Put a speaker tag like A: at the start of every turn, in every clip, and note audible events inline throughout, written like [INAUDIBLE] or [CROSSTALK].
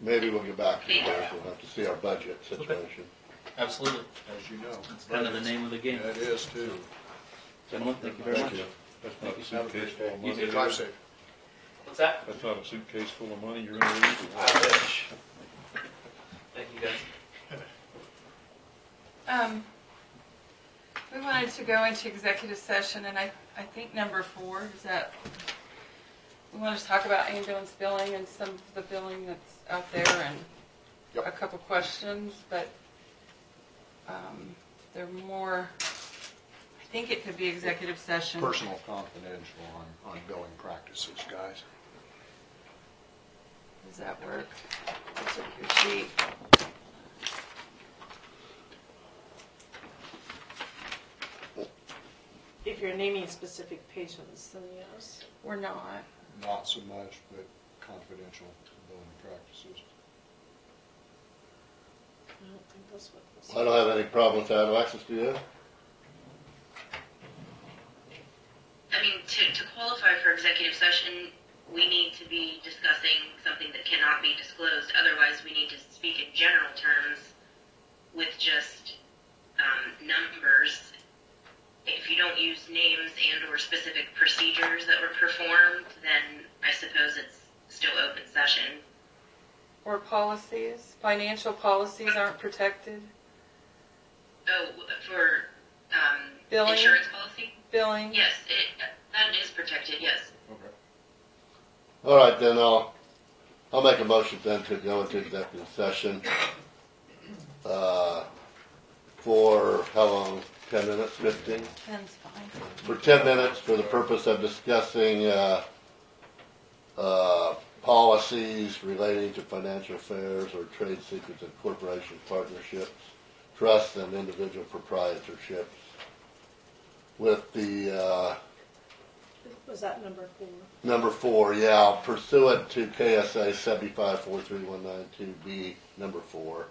A: Maybe we'll get back to you guys, we'll have to see our budget situation.
B: Absolutely.
C: as you know.
B: That's kind of the name of the game.
C: It is too.
B: Gentlemen, thank you very much.
A: That's not a
C: Have a
A: suitcase
C: great
A: full
C: day.
A: of
C: You
A: money.
C: too. Drive safe.
B: What's that?
A: That's not a suitcase full of money you're gonna
B: I
A: leave.
B: wish. Thank you guys.
D: Um, we wanted to go into executive session, and I, I think number four is that we want to talk about ambulance billing and some of the billing that's out there and
C: Yep.
D: a couple questions, but, um, they're more, I think it could be executive session.
C: Personal confidential on, on billing practices, guys.
D: Does that work? That's what your sheet.
E: If you're naming specific patients, then yes.
D: We're not.
C: Not so much, but confidential billing practices.
E: I don't think that's what this
A: I don't have any problem with that, Alexis, do you?
F: I mean, to, to qualify for executive session, we need to be discussing something that cannot be disclosed. Otherwise, we need to speak in general terms with just um, numbers. If you don't use names and/or specific procedures that were performed, then I suppose it's still open session.
D: Or policies, financial policies aren't protected,
F: Oh, for um,
D: Billing?
F: insurance policy?
D: billing.
F: Yes, it, that is protected. Yes.
A: All right, then I'll, I'll make a motion then to go into executive session. Uh, for how long? Ten minutes, fifteen?
D: Ken's fine.
A: For ten minutes for the purpose of discussing, uh, uh, policies relating to financial affairs or trade secrets and corporation partnerships, trusts and individual proprietorships. With the, uh,
E: Was that number four?
A: Number four, yeah, pursuant to KSA seventy-five four three one nine two B, number four.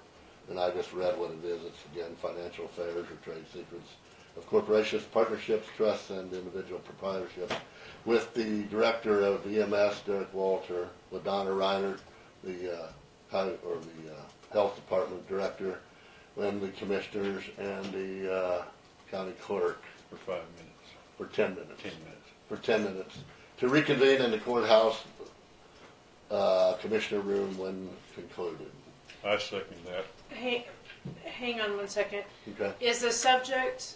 A: And I just read what it is. It's again, financial affairs or trade secrets of corporations, partnerships, trusts, and individual proprietorships. With the director of EMS, Derek Walter, with Donna Reiner, the, uh, hi- or the, uh, health department director, and the commissioners and the, uh, county clerk
G: For five minutes,
A: for ten minutes
G: ten minutes.
A: for ten minutes to reconvene in the courthouse uh, commissioner room when concluded.
G: I second that.
E: Hang, hang on one second.
A: Okay.
E: Is the subject,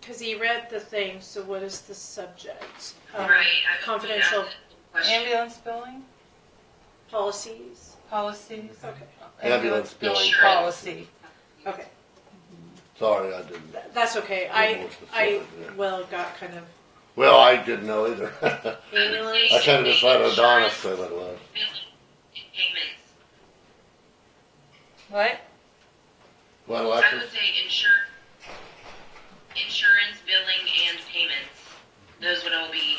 E: because he read the thing, so what is the subject? Um,
F: right. I-
E: Confidential
F: yeah, question.
D: Ambulance billing,
E: policies?
D: policies.
F: Mm-hmm.
E: Okay,
A: Ambulance billing
D: Policy.
E: okay.
A: Sorry, I didn't.
E: Th- That's okay.
A: More
E: I, I,
A: specific, yeah.
E: well, got kind of
A: Well, I didn't know either. [LAUGHS] I
E: ambulance.
A: kind of decided Adonis said what it was.
F: Payments.
D: What?
A: What,
F: I would
A: Alexis?
F: say insure, insurance, billing, and payments. Those would all be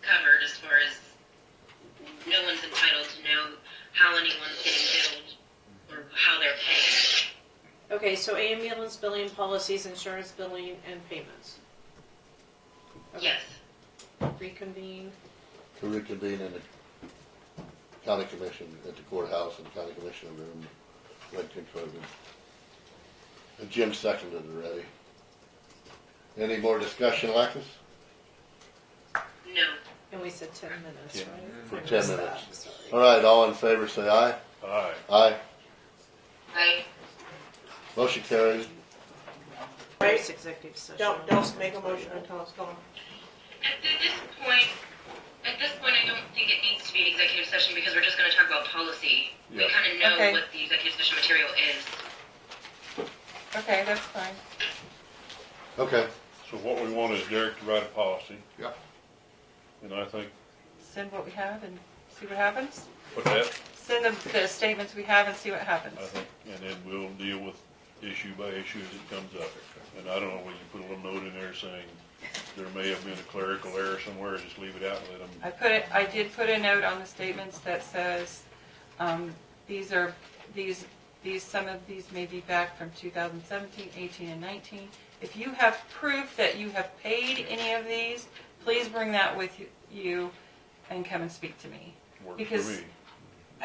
F: covered as far as no one's entitled to know how anyone's getting billed or how they're paying.
E: Okay, so ambulance billing, policies, insurance billing, and payments. Okay.
F: Yes.
E: Reconvene.
A: To reconvene in the county commission, at the courthouse and county commissioner room when concluded. And Jim seconded already. Any more discussion, Alexis?
F: No.
E: And we said ten minutes,
G: Yeah,
E: right?
A: for
E: I
A: 10
E: missed
A: minutes.
E: that, sorry.
A: All right, all in favor, say aye.
G: Aye.
A: Aye.
F: I,
A: Motion carried.
E: Right, executive session.
H: Don't, don't make a motion until it's gone.
F: at this point, at this point, I don't think it needs to be an executive session because we're just gonna talk about policy. We
G: Yeah.
F: kinda know
D: Okay.
F: what the executive session material is.
D: Okay, that's fine.
A: Okay.
G: So what we want is Derek to write a policy.
C: Yeah.
G: And I think,
D: Send what we have and see what happens.
G: put that,
D: Send the, the statements we have and see what happens.
G: I think, and then we'll deal with issue by issue as it comes up. And I don't know, whether you put a little note in there saying there may have been a clerical error somewhere, just leave it out and let them,
D: I put it, I did put a note on the statements that says, um, these are, these, these, some of these may be back from 2017, 18, and 19. If you have proof that you have paid any of these, please bring that with you- you and come and speak to me.
G: work for
D: Because
G: me.